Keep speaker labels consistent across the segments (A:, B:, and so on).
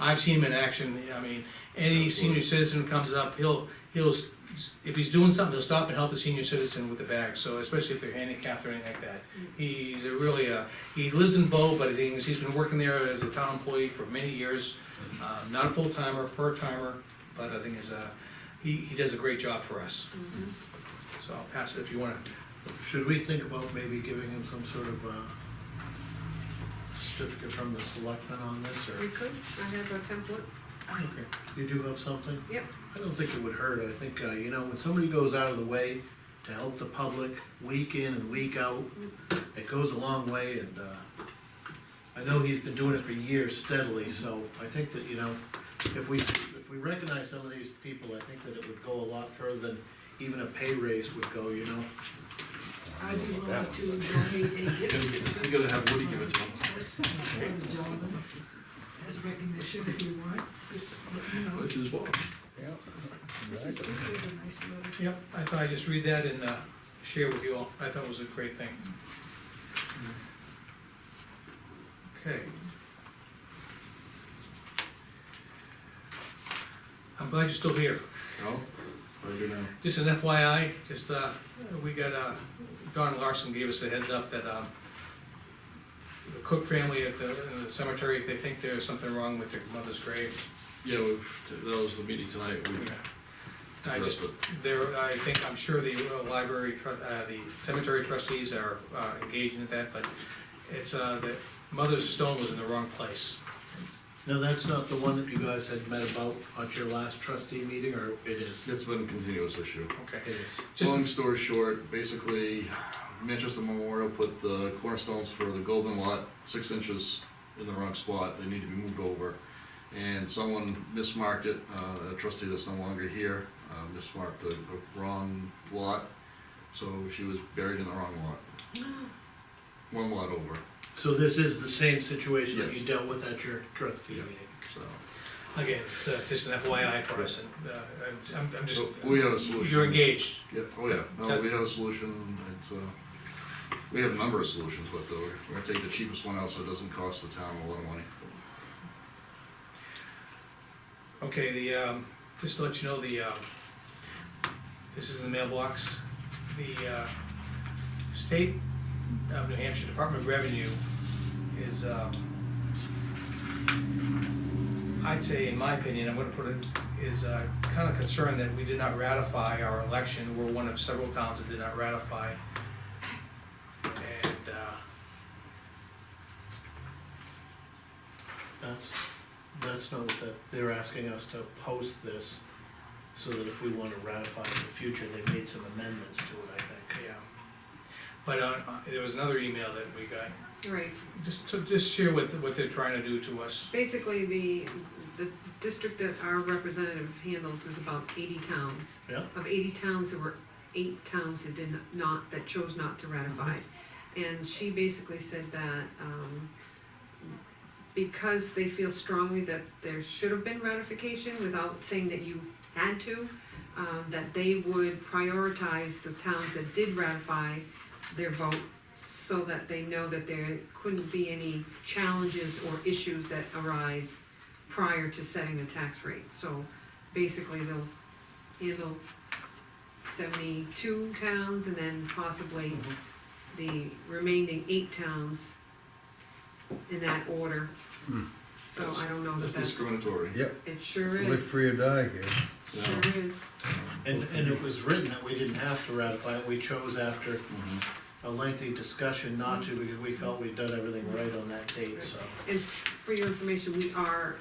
A: I've seen him in action, I mean, any senior citizen comes up, he'll, he'll, s- if he's doing something, he'll stop and help the senior citizen with the bag, so especially if they're handicapped or anything like that. He's a really, uh, he lives in Bow, but the thing is, he's been working there as a town employee for many years. Uh, Not a full timer, part timer, but I think is, uh, he, he does a great job for us. So I'll pass it if you wanna,
B: Should we think about maybe giving him some sort of, uh, certificate from the selectmen on this,
C: We
B: or
C: could, I have a template,
A: okay,
B: you do have something?
C: yep,
B: I don't think it would hurt, I think, uh, you know, when somebody goes out of the way to help the public, week in and week out, it goes a long way, and, uh, I know he's been doing it for years steadily, so I think that, you know, if we, if we recognize some of these people, I think that it would go a lot further than even a pay raise would go, you know?
D: I'd be willing to donate a gift
E: You gotta have Woody give it to him.
D: to this, to Jonathan, as recognition if you want, just, you know,
E: This is what.
D: this is, this is a nice letter.
A: yep, I thought I'd just read that and, uh, share with you all, I thought it was a great thing. Okay. I'm glad you're still here.
E: Oh, I do now.
A: Just an FYI, just, uh, we got, uh, Don Larson gave us a heads up that, um, the Cook family at the, in the cemetery, they think there's something wrong with their mother's grave.
E: Yeah, we've, that was the meeting tonight. We
A: I just,
E: addressed it.
A: there, I think, I'm sure the uh, library, tru- uh, the cemetery trustees are, uh, engaged in that, but it's, uh, the mother's stone was in the wrong place.
B: Now, that's not the one that you guys had met about at your last trustee meeting, or it is? It
E: It's been a continuous issue.
A: Okay.
B: is.
A: Just,
E: Long story short, basically Manchester Memorial put the cornerstones for the Golden Lot six inches in the wrong spot. They need to be moved over. And someone mismarked it, uh, a trustee that's no longer here, uh, mismarked the, the wrong lot. So she was buried in the wrong lot. One lot over,
B: So this is the same situation that
E: Yes.
B: you dealt with at your trustee
E: Yeah.
B: meeting?
E: so.
A: again, it's, uh, just an FYI for us, and, uh, I'm, I'm just,
E: So we have a solution.
A: you're engaged.
E: Yeah, oh yeah, no, we have a solution, it's, uh, we have a number of solutions, but though, we're gonna take the cheapest one out so it doesn't cost the town a lot of money.
A: Okay, the, um, just to let you know, the, um, this is in the mailbox, the, uh, State of New Hampshire Department of Revenue is, um, I'd say, in my opinion, I'm gonna put it, is, uh, kinda concerned that we did not ratify our election, we're one of several towns that did not ratify. And, uh,
B: That's, that's not what that, they're asking us to post this, so that if we wanna ratify in the future, they made some amendments to it, I think.
A: yeah. But, uh, there was another email that we got,
C: right.
A: Just, to- just share what, what they're trying to do to us.
C: Basically, the, the district that our representative handles is about eighty towns.
B: Yeah.
C: Of eighty towns, there were eight towns that did not, that chose not to ratify. And she basically said that, um, because they feel strongly that there should have been ratification without saying that you had to, um, that they would prioritize the towns that did ratify their vote so that they know that there couldn't be any challenges or issues that arise prior to setting the tax rate. So basically, they'll handle seventy-two towns and then possibly the remaining eight towns in that order.
F: Hmm.
C: So I don't know
E: That's
C: that that's,
E: discriminatory.
F: Yep,
C: it sure
F: live
C: is,
F: free or die here.
E: Yeah.
C: sure is.
B: And, and it was written that we didn't have to ratify it, we chose after
E: Mhm.
B: a lengthy discussion not to, because we felt we'd done everything right on that date, so.
C: And for your information, we are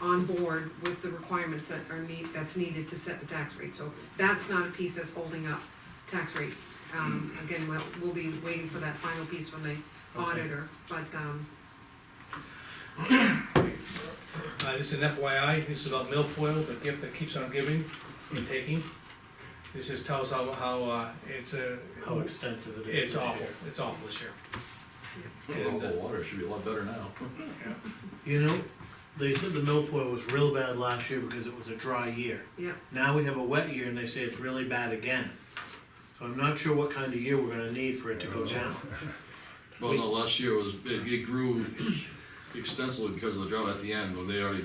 C: on board with the requirements that are need, that's needed to set the tax rate, so that's not a piece that's holding up tax rate. Um, again, we'll, we'll be waiting for that final piece from the auditor, but, um,
A: Uh, this is an FYI, this is about milfoil, the gift that keeps on giving and taking. This is, tells how, how, uh, it's a,
B: How extensive it is.
A: it's
B: this
A: awful,
B: year.
A: it's awful this year.
E: Well, the water should be a lot better now.
B: You know, they said the milfoil was real bad last year because it was a dry year.
C: yeah,
B: Now we have a wet year and they say it's really bad again. So I'm not sure what kind of year we're gonna need for it to go down.
E: Well, no, last year was, it, it grew extensively because of the drought at the end, when they already